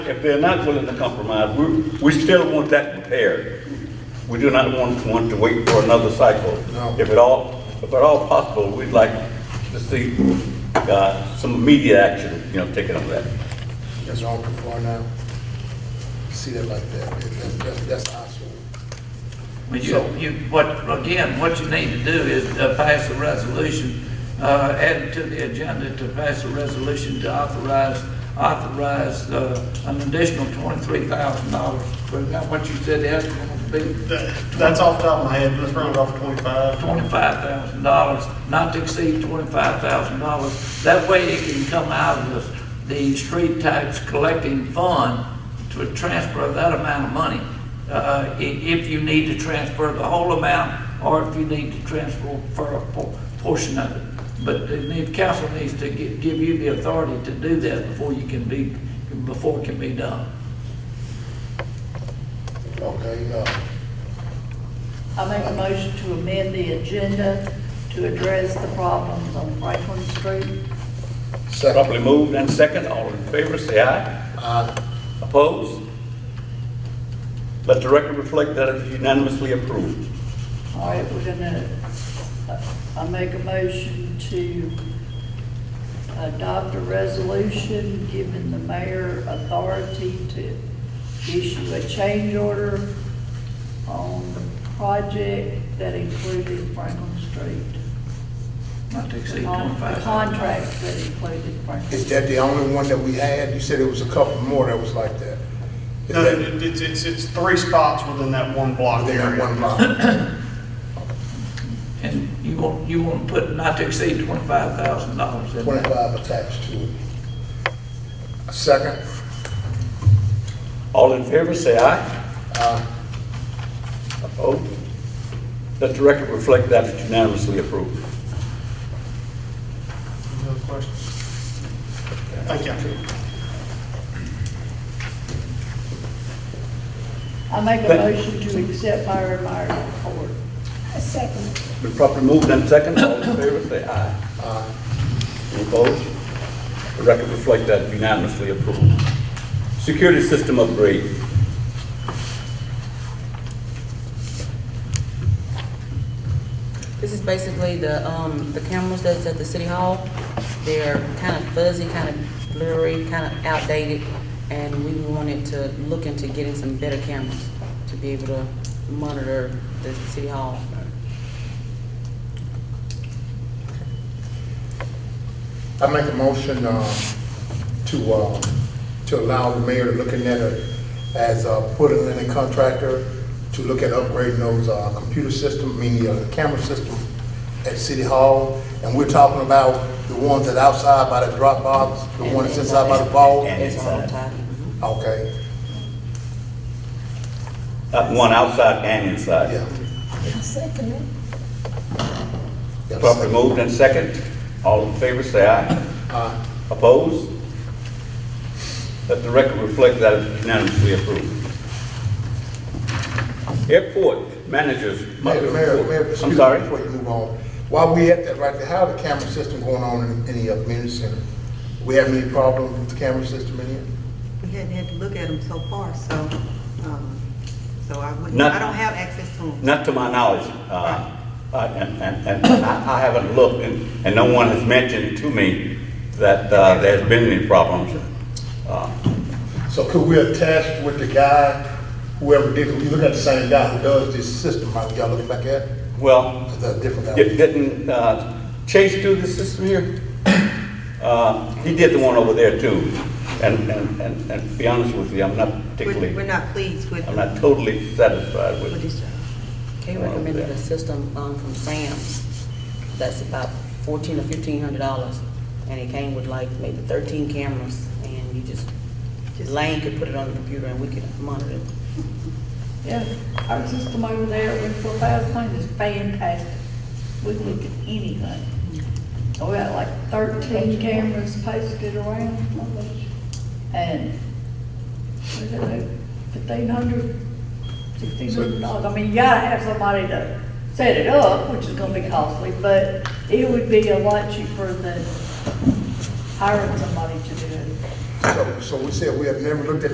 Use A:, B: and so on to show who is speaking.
A: If they're not willing to compromise, we, we still want that repaired. We do not want, want to wait for another cycle.
B: No.
A: If at all, if at all possible, we'd like to see, uh, some immediate action, you know, taken on that.
B: That's all before now. See that like that, That- that- that- that's our school.
C: But you,
B: So-
C: you, what, again, what you need to do is uh, pass a resolution, uh, add it to the agenda to pass a resolution to authorize, authorize, uh, an additional twenty-three thousand dollars. But not what you said the estimate would be,
D: That- That's off the top of my head, let's round it off to twenty-five.
C: twenty-five thousand dollars, not to exceed twenty-five thousand dollars. That way it can come out of the, the street tax collecting fund to transfer that amount of money. Uh, i- if you need to transfer the whole amount, or if you need to transfer for a por- portion of it. But the the council needs to gi- give you the authority to do that before you can be, before it can be done.
B: Okay, uh,
E: I make a motion to amend the agenda to address the problems on Franklin Street.
B: second.
A: Properly moved and second, all in favor, say aye.
B: Uh,
A: Opposed? Let the record reflect that it is unanimously approved.
E: All right, we're gonna, uh, I make a motion to adopt a resolution giving the mayor authority to issue a change order on the project that included Franklin Street.
C: Not to exceed
E: The
C: twenty-five thousand.
E: Contracts that included Franklin.
B: Is that the only one that we had? You said it was a couple more that was like that. Is
D: No,
B: that
D: it- it's, it's, it's three spots within that one block
B: within that one
D: area.
B: block?
C: And you want, you want to put not to exceed twenty-five thousand dollars in there.
B: Twenty-five attached to it. Second,
A: All in favor, say aye. Opposed? Let the record reflect that it is unanimously approved.
D: Any other questions? Thank you.
E: I make a
A: But-
E: motion to accept Myra Meyer's report.
A: Been properly moved and second, all in favor, say aye. Any Opposed? The record reflect that unanimously approved. Security system upgrade.
F: This is basically the, um, the cameras that's at the city hall. They're kind of fuzzy, kind of blurry, kind of outdated, and we wanted to look into getting some better cameras to be able to monitor the city hall.
B: I make a motion, uh, to, uh, to allow the mayor to look in it as, uh, put in a contractor to look at upgrading those, uh, computer system, meaning, uh, camera system at City Hall. And we're talking about the ones that outside by the drop box, the ones that's inside by the Mm-hmm. vault.
F: It's all tied.
B: Okay,
A: Uh, One outside and inside.
B: yeah. Got a
A: Properly
B: second.
A: moved and second, all in favor, say aye.
B: Aye.
A: Opposed? Let the record reflect that it is unanimously approved. Airport managers.
B: Mayor, Mayor, Mayor, excuse
A: I'm
B: me,
A: sorry?
B: Before you move on, while we at that right there, how the camera system going on in, in the uh, community center? We have any problem with the camera system in here?
G: We hadn't had to look at them so far, so, um, so I wouldn't,
A: Not-
G: I don't have access to them.
A: Not to my knowledge, uh, I- and, and, and I I haven't looked, and, and no one has mentioned to me that, uh, there's been any problems. Uh,
B: So could we attach with the guy, whoever did, you look at the same guy who does this system, like y'all looking back at?
A: Well,
B: Is that a different guy?
A: it didn't, uh, Chase do the system here? Uh, he did the one over there too, and, and, and, and to be honest with you, I'm not
G: We're, we're
A: particularly,
G: not pleased with,
A: I'm not totally satisfied with
G: with
A: it.
G: this job.
F: They recommended a system, um, from Sam's that's about fourteen or fifteen hundred dollars. And it came with like maybe thirteen cameras, and you just, Lane could put it on the computer and we could monitor it.
E: Yeah, our system over there in Fort Valentine is fantastic. We can look at anything. Oh, We got like thirteen cameras posted around. And what is it, fifteen hundred, sixteen hundred dollars? I mean, you gotta have somebody to set it up, which is gonna be costly, but it would be a lot cheaper than hiring somebody to do it.
B: So, so we said we have never looked at